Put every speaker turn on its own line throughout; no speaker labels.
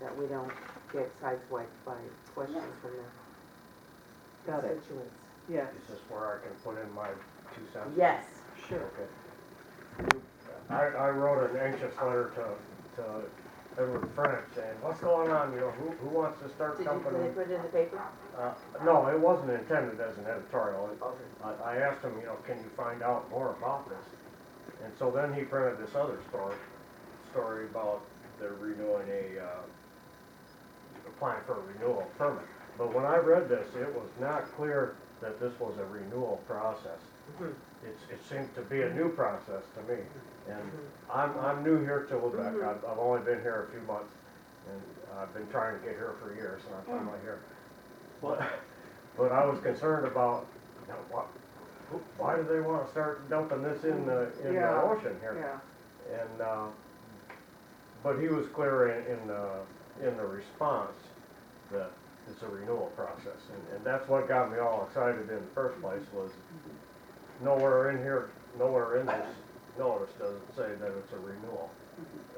that we don't get sideswiped by questions from the
Got it,
constituents.
yes,
Is this where I can put in my two cents?
Yes,
sure.
Okay. I, I wrote an anxious letter to, to Edward French saying, what's going on, you know, who, who wants to start
did you put
company?
it, put it in the paper?
Uh, no, it wasn't intended as an editorial. It-
Okay.
I, I asked him, you know, can you find out more about this? And so then he printed this other story, story about they're renewing a, uh, applying for a renewal permit. But when I read this, it was not clear that this was a renewal process.
Mhm.
It's, it seemed to be a new process to me. And I'm, I'm new here to Lubec.
Mhm.
I've, I've only been here a few months and I've been trying to get here for years and I'm finally here. But, but I was concerned about, you know, what, who- why do they wanna start dumping this in the, in the
Yeah,
ocean here?
Yeah,
And, uh, but he was clear in, in the, in the response that it's a renewal process. And, and that's what got me all excited in the first place was nowhere in here, nowhere in this notice does it say that it's a renewal,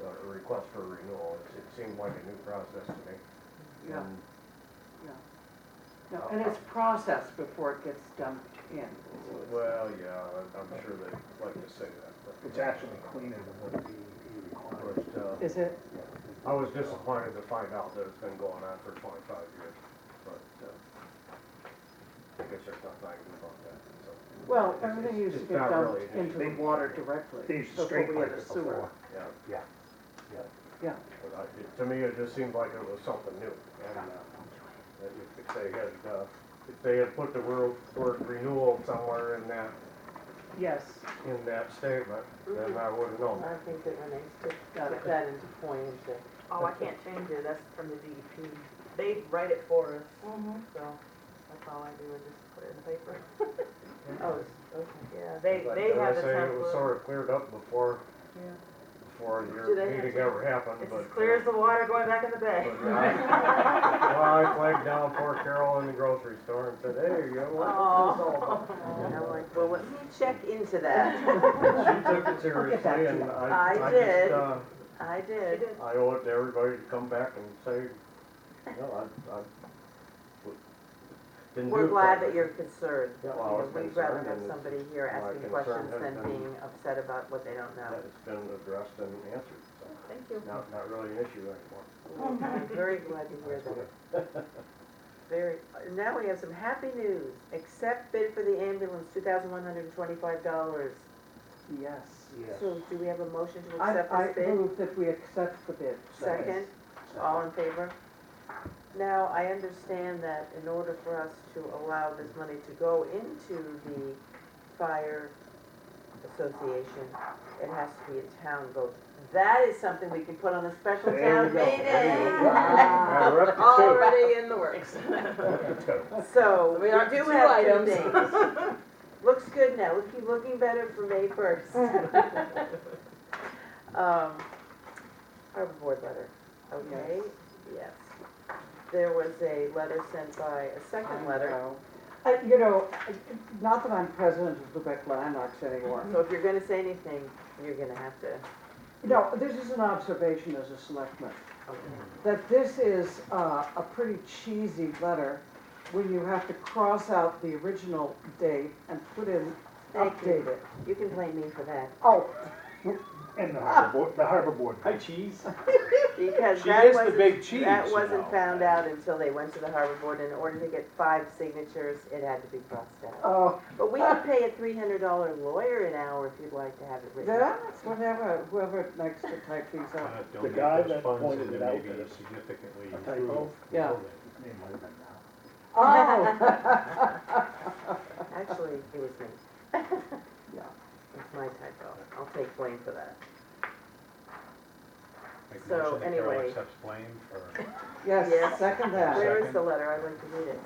uh, a request for renewal. It- It seemed like a new process to me.
yeah,
And
yeah. No, And it's processed before it gets dumped in.
Well, yeah, I- I'm sure they'd like to say that, but.
It's actually cleaner than what DEP requires.
But, uh,
Is it?
I was disappointed to find out that it's been going on for twenty-five years, but, uh, I guess there's nothing I can do about that, so.
Well,
It's-
everything
it's-
used to
it's
get
not really
dumped
an
into
issue.
the
They-
water directly.
They used
before
to
we
straight
had
pipe
a
it
sewer.
before.
Yeah,
Yeah,
Yeah,
but I, it- to me, it just seemed like it was something new, and, uh, that if- if they had, uh, if they had put the word, word renewal somewhere in that,
yes,
in that statement,
Mm-hmm.
then I would've known.
I think that when they stick-
Got
put
it.
that into point, into.
Oh, I can't change it, that's from the DEP. They write it for us,
Mm-hmm.
so that's all I do is just put it in the paper.
Oh, it's, okay.
Yeah, they,
But
they
as
have the
I say, it was
template.
sort of cleared up before,
Yeah.
before
Do
your
they have
meeting
to-
ever happened,
It's
but.
as clear
uh,
as the water going back in the bay.
But, uh, Well, I flagged down poor Carol in the grocery store and said, hey, you know what? this is all about?"
Aw.
And I'm like, well, let me check into that.
She took it
back
seriously
to
and
you.
I,
I
I
did.
just, uh,
I
She
did.
did.
I owe it to everybody to come back and say, no, I, I w- didn't do
We're
it
glad that
properly."
you're concerned.
Yeah, well, I was
We'd rather
concerned
have
and
somebody here
my
asking
concern
questions
has
than
been-
being upset about what they don't know.
That It's been addressed and answered, so
Thank you.
not, not really an issue anymore.
I'm very glad to hear that. Very, now we have some happy news. Accept bid for the ambulance, two thousand one hundred and twenty-five dollars.
yes.
yes.
So do we have a motion to
I,
accept
I
this bid?
move that we accept the bid.
Second, all
Oh,
in favor? Now, I understand that in order for us to allow this money to go into the fire association, it has to be a town vote. That is something we can put on a special
There we
town
go. There
you
meeting.
go.
Now, we're up to two.
Already in the works.
Up to two.
So, we
We are
do
two
have two
items.
things. Looks good now, we keep looking better for May first. Um, harbor board letter, okay, yes. There was a letter sent by, a second letter,
I, you know, not that I'm president of Lubec Landmarks anymore,
so if you're gonna say anything, you're gonna have to,
No, this is an observation as a selectman, that this is uh, a pretty cheesy letter when you have to cross out the original date and put in
Thank you.
updated.
you can blame me for that.
Oh,
And the
Ah.
harbor board, the harbor board.
Hi, cheese.
Because
She
that
is the
wasn't.
big cheese.
That
you
wasn't
know.
found out until they went to the harbor board, in order to get five signatures, it had to be crossed out.
oh,
But we could pay a three hundred dollar lawyer an hour if you'd like to have it written.
that's whatever, whoever likes to type these
Uh,
up.
The guy that pointed it out that it's
Significantly
a typo.
Yeah.
It might have been now.
Oh,
Actually, it was me.
Yeah.
It's my typo. I'll take blame for that.
Make a
So,
motion that Carol
anyway.
accepts blame for-
Yes.
yes, second that.
Where is the letter? I'd like to read it.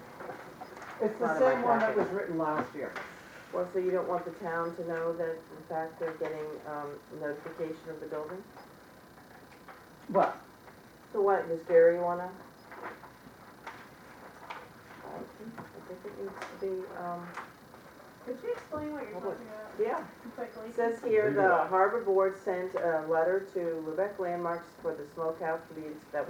It's
Out
the
of my
same one that
packet.
was written last year.
Well, so you don't want the town to know that in fact they're getting, um, notification of the building?
Well,
So what, does Gary wanna? I think I think it needs to be, um,
Could you explain what you're talking about
yeah.
quickly?
It says here, the harbor board sent a letter to Lubec Landmarks for the smokehouse to be, ins- that